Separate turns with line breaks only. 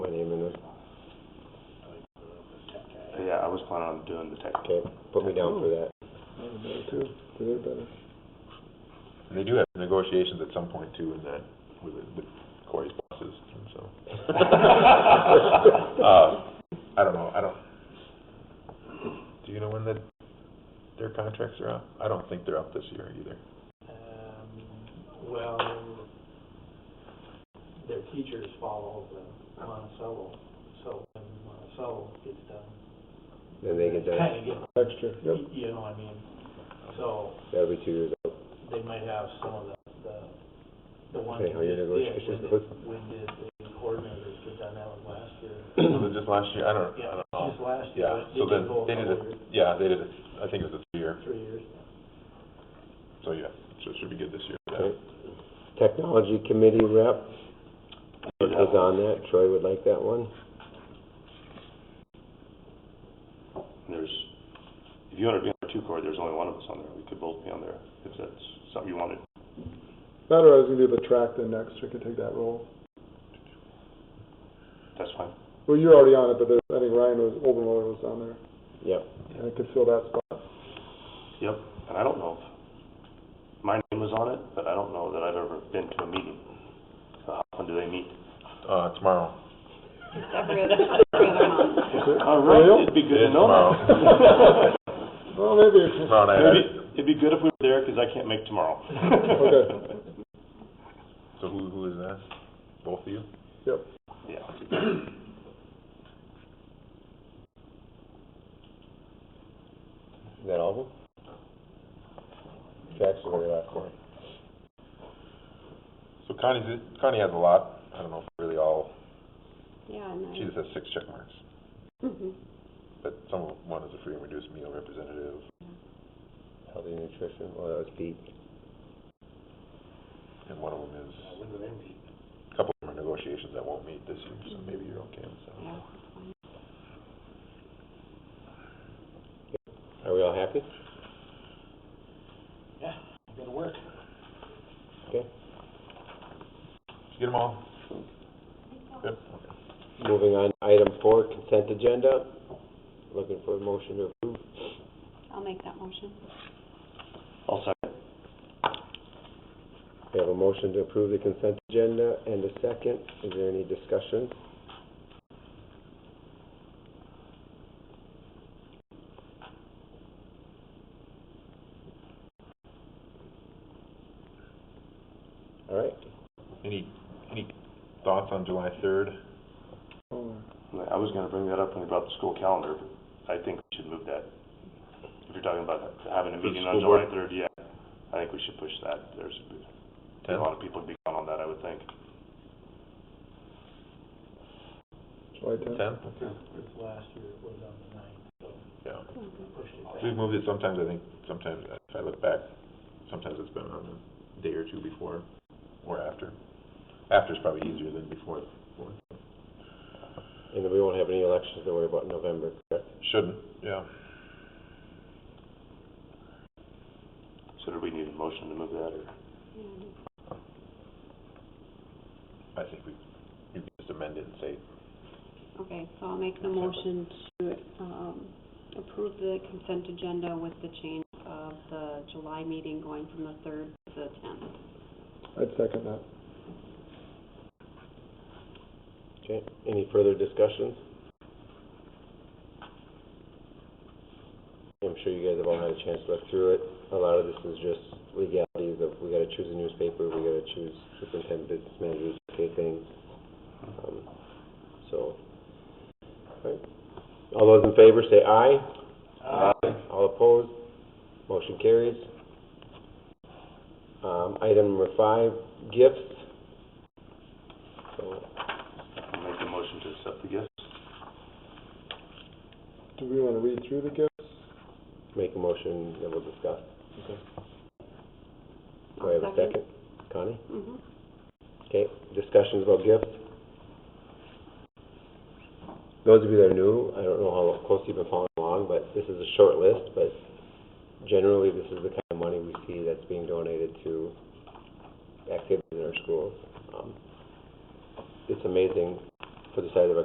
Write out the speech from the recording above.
so yeah, I was planning on doing the tech.
Okay, put me down for that.
And they do have negotiations at some point too in that, with, with Corey's bosses, and so. Uh, I don't know, I don't, do you know when the, their contracts are up? I don't think they're up this year either.
Um, well, their teachers follow the Monticello, so when Monticello gets done.
Then they get that,
Kinda get,
Extra, yep.
y- you know what I mean? So
every two years out.
they might have some of the, the, the ones.
Depending how your
that-
negotiations
yeah,
go.
When did when did the coordinators get done that one last year?
Was it just last year? I don't, I
Yeah,
don't know.
just last year.
Yeah,
but
so
did
then,
go a
they did
couple
it,
years-
yeah, they did it, I think it was a two-year,
Three years.
so yeah, so it should be good this year. yeah.
Okay. Technology Committee rep is on that, Troy would like that one.
There's, if you wanna be on the two court, there's only one of us on there, we could both be on there, if that's something you wanted.
That or I was gonna do the track then next, we could take that role.
That's fine.
Well, you're already on it, but there's, I think Ryan was, Obermuller was on there,
Yep,
and I could fill that spot.
Yep. And I don't know if, my name was on it, but I don't know that I've ever been to a meeting. So how often do they meet?
Uh, tomorrow.
Every other, every other month.
All right, Uh, it'd be good
Yeah,
to know
tomorrow.
that.
Well, maybe, it's-
Tomorrow night, I-
Maybe- It'd be good if we were there, 'cause I can't make tomorrow.
Okay.
so who, who is that? Both of you?
Yeah.
is that all of them? Tracks is where they're at, Cory.
So Connie's, Connie has a lot, I don't know if really all,
Yeah, and
she
then,
just has six check marks.
mhm.
But some of one is a free and reduced meal representative.
Healthy Nutrition, well, that was Pete.
And one of them is, a couple of them are negotiations that won't meet this year, so maybe you're okay with that.
yeah.
Are we all happy?
Yeah, gotta work.
Did you get them all? Yep.
Moving on, item four, consent agenda. Looking for a motion to approve.
I'll make that motion.
I'll second.
We have a motion to approve the consent agenda and a second. Is there any discussion? All right,
Any, any thoughts on July third?
oh,
I was gonna bring that up when we brought the school calendar, but I think we should move that. If you're talking about having a
For the
meeting on
school
July
board?
third, yeah, I think we should push that. There's a
Ten?
lot of people would be gone on that, I would think.
July tenth.
Ten?
Last year it was on the ninth, so
Yeah.
Mhm.
pushed it back.
We've moved it sometimes, I think, sometimes, if I look back, sometimes it's been on a day or two before or after. After's probably easier than before.
and then we won't have any elections to worry about in November, correct?
Shouldn't, yeah.
So do we need a motion to move that, or?
Yeah.
I think we, you can just amend it and say
Okay, so I'll make the motion to, um, approve the consent agenda with the change of the July meeting going from the third to the tenth.
I'd second that.
Okay, any further discussions? I'm sure you guys have all had a chance to look through it. A lot of this is just legalities of we gotta choose a newspaper, we gotta choose superintendent, business managers, okay things. Um, So, all right. All those in favor say aye. All opposed, motion carries. Um, item number five, gifts. So,
I'll Make a motion to accept the gifts?
Do we wanna read through the gifts?
Make a motion that we'll discuss. Do I have a second? Connie?
hmm
Okay, discussions about gifts? Those of you that are new, I don't know how close you've been following along, but this is a short list, but generally, this is the kind of money we see that's being donated to activities in our schools. Um, It's amazing for the size of our